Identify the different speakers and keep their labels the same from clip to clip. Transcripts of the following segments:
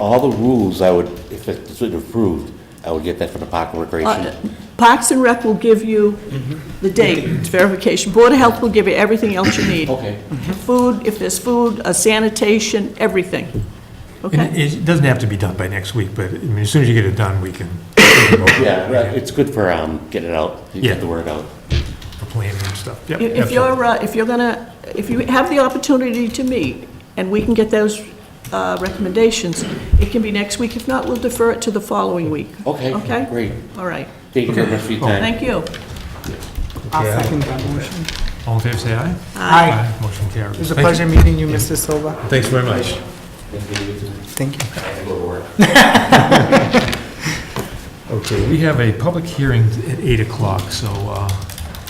Speaker 1: All the rules I would, if it's approved, I would get that from the Park and Recreation.
Speaker 2: Uh, Parks and Rec will give you
Speaker 1: Mm-hmm.
Speaker 2: the date verification. Board of Health will give you everything else you need. Mm-hmm.
Speaker 1: Okay.
Speaker 2: Food, if there's food, uh, sanitation, everything.
Speaker 3: And
Speaker 2: Okay?
Speaker 3: it it doesn't have to be done by next week, but I mean, as soon as you get it done, we can.
Speaker 1: Yeah, right, it's good for, um, getting it out, you get
Speaker 3: Yeah.
Speaker 1: the word out.
Speaker 3: For planning and stuff. Yep,
Speaker 2: If if
Speaker 3: absolutely.
Speaker 2: you're, uh, if you're gonna, if you have the opportunity to meet, and we can get those uh, recommendations, it can be next week. If not, we'll defer it to the following week.
Speaker 1: Okay,
Speaker 2: Okay?
Speaker 1: great.
Speaker 2: All right.
Speaker 1: Thank you very much for your time.
Speaker 2: Thank you.
Speaker 4: I'll
Speaker 3: Okay, I'll-
Speaker 4: second that motion.
Speaker 3: All in favor, say aye.
Speaker 4: Aye.
Speaker 3: Motion carries.
Speaker 4: It was a
Speaker 3: Thank you.
Speaker 4: pleasure meeting you, Mr. Silva.
Speaker 3: Thanks very much.
Speaker 4: Thank you.
Speaker 3: Okay, we have a public hearing at 8 o'clock, so, uh,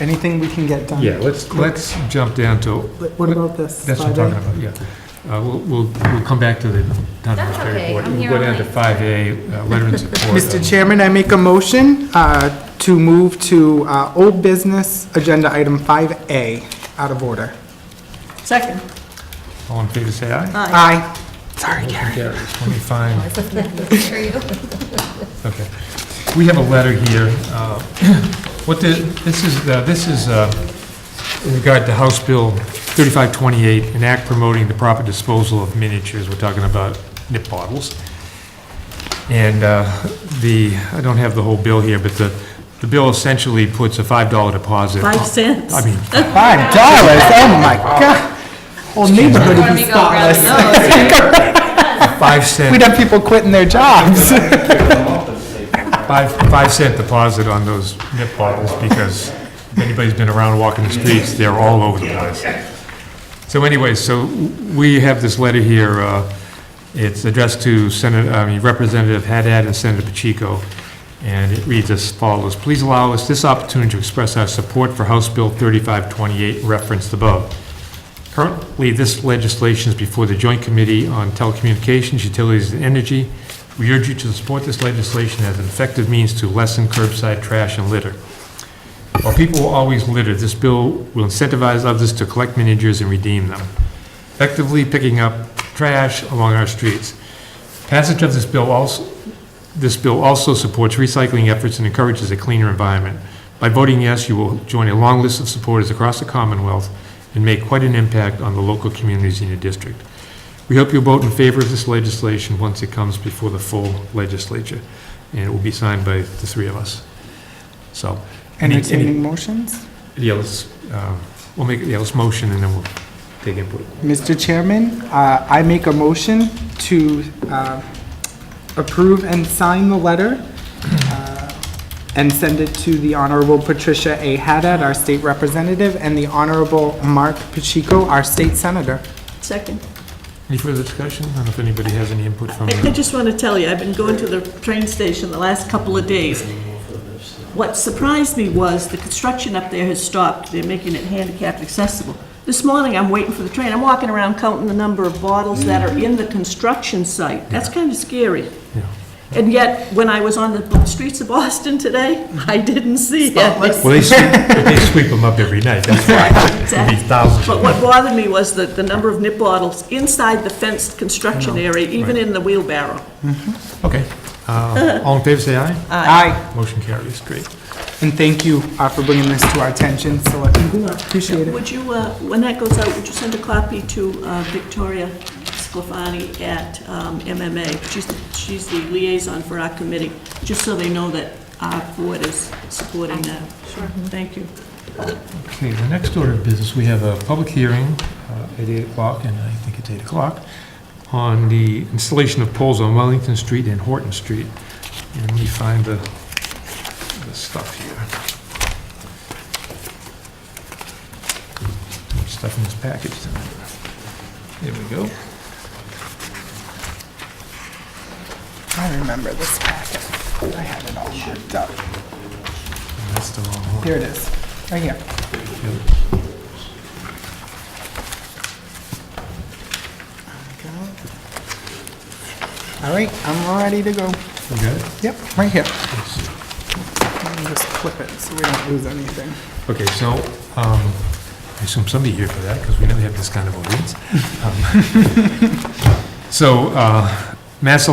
Speaker 4: Anything we can get done?
Speaker 3: yeah, let's, let's jump down to,
Speaker 4: But What about this?
Speaker 3: that's what I'm
Speaker 4: 5A?
Speaker 3: talking about, yeah. Uh, We'll, we'll we'll come back to the town
Speaker 5: That's
Speaker 3: administrator
Speaker 5: okay,
Speaker 3: board.
Speaker 5: I'm here
Speaker 3: We'll go
Speaker 5: all
Speaker 3: down to
Speaker 5: night.
Speaker 3: 5A, uh, Veterans Support.
Speaker 4: Mr. Chairman, I make a motion uh, to move to uh, old business agenda item 5A out of order.
Speaker 2: Second.
Speaker 3: All in favor, say aye.
Speaker 4: Aye. Sorry,
Speaker 3: Motion
Speaker 4: Karen.
Speaker 3: carries. Let me find
Speaker 5: For you.
Speaker 3: Okay. We have a letter here. uh, What the, this is, uh, this is uh, in regard to House Bill 3528, an act promoting the proper disposal of miniatures. We're talking about nip bottles. And uh, the, I don't have the whole bill here, but the, the bill essentially puts a $5 deposit.
Speaker 2: Five cents.
Speaker 3: I mean,
Speaker 4: Five dollars, oh my God. Whole neighborhood
Speaker 5: Before
Speaker 4: would
Speaker 5: we
Speaker 4: be
Speaker 5: go around
Speaker 4: spotless.
Speaker 5: the nose here.
Speaker 3: 5 cent.
Speaker 4: We'd have people quitting their jobs.
Speaker 3: five, five cent deposit on those nip bottles, because if anybody's been around walking the streets, they're all over the place. So anyway, so we have this letter here, uh, it's addressed to Senator, I mean Representative Haddad and Senator Pacheco, and it reads as follows, "Please allow us this opportunity to express our support for House Bill 3528 referenced above. Currently, this legislation is before the Joint Committee on Telecommunications, Utilities, and Energy. We urge you to support this legislation as an effective means to lessen curbside trash and litter. While people will always litter, this bill will incentivize others to collect miniatures and redeem them, effectively picking up trash along our streets. Passage of this bill also, this bill also supports recycling efforts and encourages a cleaner environment. By voting yes, you will join a long list of supporters across the Commonwealth and make quite an impact on the local communities in your district. We hope you'll vote in favor of this legislation once it comes before the full legislature, and it will be signed by the three of us. So. any- any-
Speaker 4: Entertaining motions?
Speaker 3: yeah, let's, uh, we'll make, yeah, let's motion and then we'll take input.
Speaker 4: Mr. Chairman, uh, I make a motion to uh, approve and sign the letter uh, and send it to the Honorable Patricia A. Haddad, our state representative, and the Honorable Mark Pacheco, our state senator.
Speaker 2: Second.
Speaker 3: Any further discussion? I don't know if anybody has any input from,
Speaker 2: I I
Speaker 3: the-
Speaker 2: just want to tell you, I've been going to the train station the last couple of days. What surprised me was the construction up there has stopped. They're making it handicapped accessible. This morning, I'm waiting for the train. I'm walking around counting the number of bottles that are in the construction site. That's kind of scary.
Speaker 3: Yeah.
Speaker 2: And yet, when I was on the streets of Boston today, I didn't see it.
Speaker 3: well, they sweep, but they sweep them up every night, that's why. It'd be thousands.
Speaker 2: But what bothered me was that the number of nip bottles inside the fenced construction area, even in the wheelbarrow.
Speaker 3: Okay. Uh, All in favor, say aye.
Speaker 4: Aye.
Speaker 3: Motion carries, great.
Speaker 4: And thank you uh, for bringing this to our attention, Selectman Goulart. Appreciate it.
Speaker 2: Would you, uh, when that goes out, would you send a copy to uh, Victoria Sclafani at um, MMA? She's, she's the liaison for our committee, just so they know that our board is supporting that. Sure. Thank you.
Speaker 3: Okay, the next order of business, we have a public hearing uh, at 8 o'clock, and I think it's 8 o'clock, on the installation of poles on Wellington Street and Horton Street. And let me find the, the stuff here. Stuff in this package tonight. There we go.
Speaker 4: I remember this packet. I had it all marked up.
Speaker 3: That's the wrong one.
Speaker 4: Here it is, right here. All right, I'm ready to go.
Speaker 3: You got it?
Speaker 4: Yep, right here.
Speaker 3: Let's see.
Speaker 4: Let me just clip it so we don't lose anything.
Speaker 3: Okay, so, um, I assume somebody here for that, because we never have this kind of audience. Um, So, uh, Mass